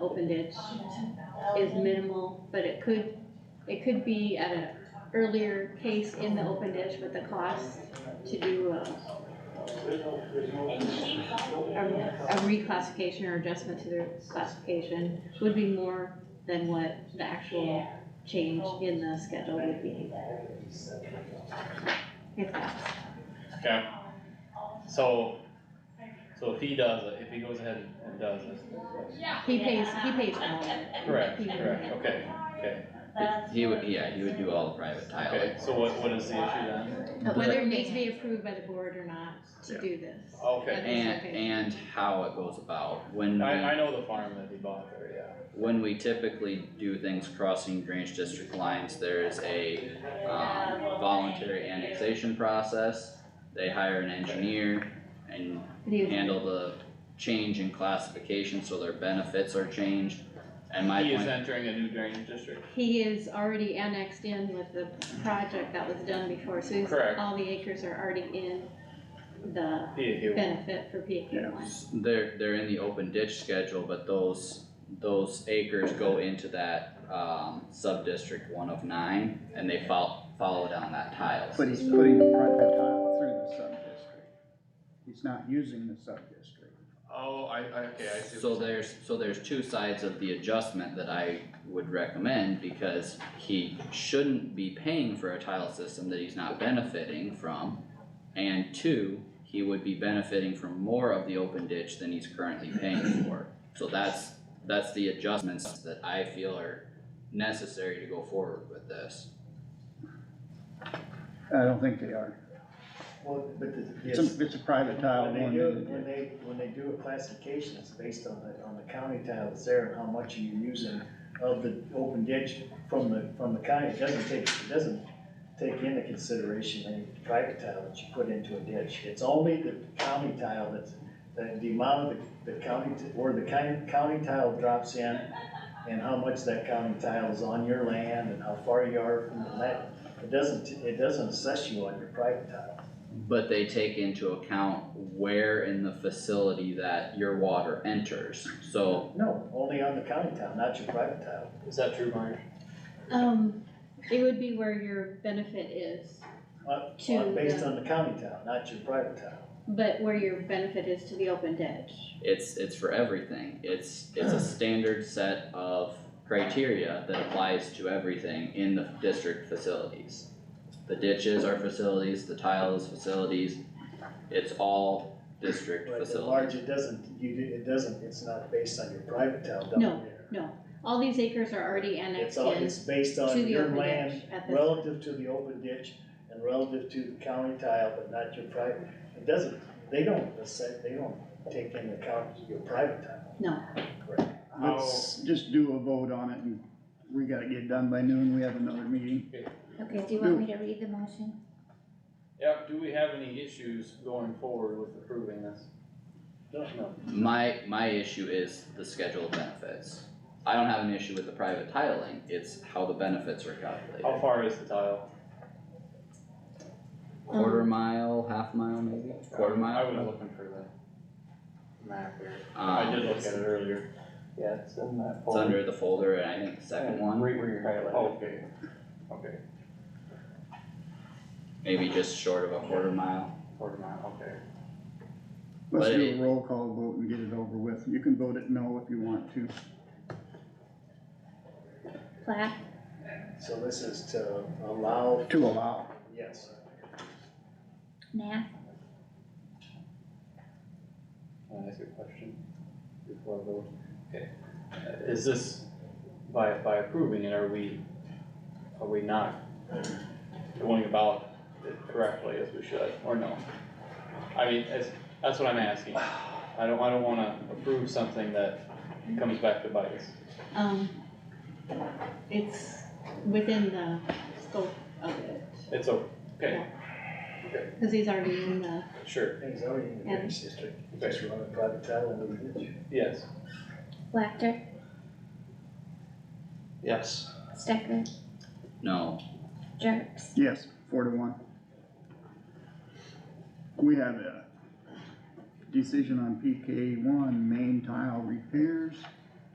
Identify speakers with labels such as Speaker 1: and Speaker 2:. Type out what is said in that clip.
Speaker 1: open ditch is minimal, but it could, it could be at an earlier case in the open ditch with the cost to do a a a reclassification or adjustment to their classification would be more than what the actual change in the schedule would be. If that's,
Speaker 2: Okay, so, so if he does it, if he goes ahead and does it,
Speaker 1: he pays, he pays for all of it.
Speaker 2: correct,
Speaker 1: He-
Speaker 2: correct, okay, okay,
Speaker 3: He would, yeah, he would do all the private
Speaker 2: okay,
Speaker 3: tile.
Speaker 2: so what, what is the issue then?
Speaker 1: But whether it needs to be approved by the board or not to do this.
Speaker 2: Okay,
Speaker 3: And, and how it goes about, when
Speaker 2: I, I
Speaker 3: we,
Speaker 2: know the farm that he bought there,
Speaker 3: when we typically do things crossing drainage district lines, there is a, um, voluntary annexation process. They hire an engineer and
Speaker 1: And he was-
Speaker 3: handle the change in classification, so their benefits are changed. And
Speaker 2: yeah.
Speaker 3: my
Speaker 2: He is
Speaker 3: point,
Speaker 2: entering a new drainage district,
Speaker 1: He is already annexed in with the project that was done before, so he's,
Speaker 2: Correct.
Speaker 1: all the acres are already in the
Speaker 2: he, he,
Speaker 1: benefit for PAK one.
Speaker 3: they're, they're in the open ditch schedule, but those, those acres go into that, um, sub-district one of nine, and they follow, follow down that tile.
Speaker 4: But he's putting the private tile through the sub-district. He's not using the sub-district.
Speaker 2: oh, I, I, okay, I see. what
Speaker 3: So
Speaker 2: you're saying.
Speaker 3: there's, so there's two sides of the adjustment that I would recommend, because he shouldn't be paying for a tile system that he's not benefiting from. And two, he would be benefiting from more of the open ditch than he's currently paying for. So that's, that's the adjustments that I feel are necessary to go forward with this.
Speaker 4: I don't think they are.
Speaker 5: Well, but the,
Speaker 4: It's a,
Speaker 5: yes,
Speaker 4: it's a private tile.
Speaker 5: when they
Speaker 4: one
Speaker 5: do,
Speaker 4: unit.
Speaker 5: when they, when they do a classification, it's based on the, on the county tile that's there and how much you're using of the open ditch from the, from the county, it doesn't take, it doesn't take into consideration any private tile that you put into a ditch. It's only the county tile that's, the, the amount of the, the county, t- where the county, county tile drops in and how much that county tile is on your land and how far you are from the land. It doesn't, it doesn't assess you on your private tile.
Speaker 3: But they take into account where in the facility that your water enters, so
Speaker 5: No, only on the county tile, not your private tile.
Speaker 2: Is that true, Mark?
Speaker 1: Um, it would be where your benefit is,
Speaker 5: On-
Speaker 1: To
Speaker 5: on- Uh, Based
Speaker 1: the-
Speaker 5: on the county tile, not your private tile.
Speaker 1: but where your benefit is to the open ditch.
Speaker 3: It's, it's for everything, it's, it's a standard set of criteria that applies to everything in the district facilities. The ditches are facilities, the tile is facilities, it's all district
Speaker 5: But at large,
Speaker 3: facilities.
Speaker 5: it doesn't, you, do- it doesn't, it's not based on your private tile
Speaker 1: No,
Speaker 5: down there.
Speaker 1: All these acres are already
Speaker 5: It's
Speaker 1: annexed
Speaker 5: all,
Speaker 1: in
Speaker 5: it's based
Speaker 1: to
Speaker 5: on
Speaker 1: the
Speaker 5: your
Speaker 1: open
Speaker 5: land
Speaker 1: ditch at this.
Speaker 5: relative to the open ditch and relative to the county tile, but not your private. It doesn't, they don't, assess- they don't take into account your private tile.
Speaker 1: No.
Speaker 5: Correct.
Speaker 4: Let's
Speaker 5: Oh.
Speaker 4: just do a vote on it and we gotta get done by noon. We have another meeting.
Speaker 6: Okay, do you want me to read the motion?
Speaker 2: Yep, do we have any issues going forward with approving this?
Speaker 5: No, no.
Speaker 3: My, my issue is the schedule of benefits. I don't have an issue with the private tiling, it's how the benefits are
Speaker 2: How
Speaker 3: calculated.
Speaker 2: far is the tile?
Speaker 3: Quarter mile, half mile maybe, quarter
Speaker 2: I was
Speaker 3: mile?
Speaker 2: looking for the map here. I
Speaker 3: Um,
Speaker 2: did look at it earlier.
Speaker 7: Yeah, it's in that
Speaker 3: it's
Speaker 7: folder.
Speaker 3: under the folder, and I think the second one. Oh,
Speaker 7: Right where you're highlighting.
Speaker 2: Okay, okay,
Speaker 3: maybe just short of a quarter mile.
Speaker 2: quarter mile, okay.
Speaker 4: Let's
Speaker 3: But
Speaker 4: do
Speaker 3: it-
Speaker 4: a roll call vote and get it over with. You can vote it no if you want to.
Speaker 1: Plaque,
Speaker 5: So this is to allow,
Speaker 4: To allow.
Speaker 5: yes,
Speaker 6: Nat,
Speaker 2: Can I ask you a question before I vote? Okay, Uh, is this, by, by approving it, are we, are we not going about it correctly as we should, or no? I mean, that's, that's what I'm asking. I don't, I don't wanna approve something that comes back to bite us.
Speaker 1: um, it's within the scope of it,
Speaker 2: It's o- okay,
Speaker 1: cause he's already in the,
Speaker 2: sure,
Speaker 5: things already in the
Speaker 1: Yeah.
Speaker 5: drainage district, you just run a private tile into the ditch.
Speaker 2: yes.
Speaker 6: Wactor,
Speaker 7: Yes.
Speaker 6: Stecker,
Speaker 3: No,
Speaker 6: Jerks,
Speaker 4: Yes, four to one. We have a decision on PK one, main tile repairs.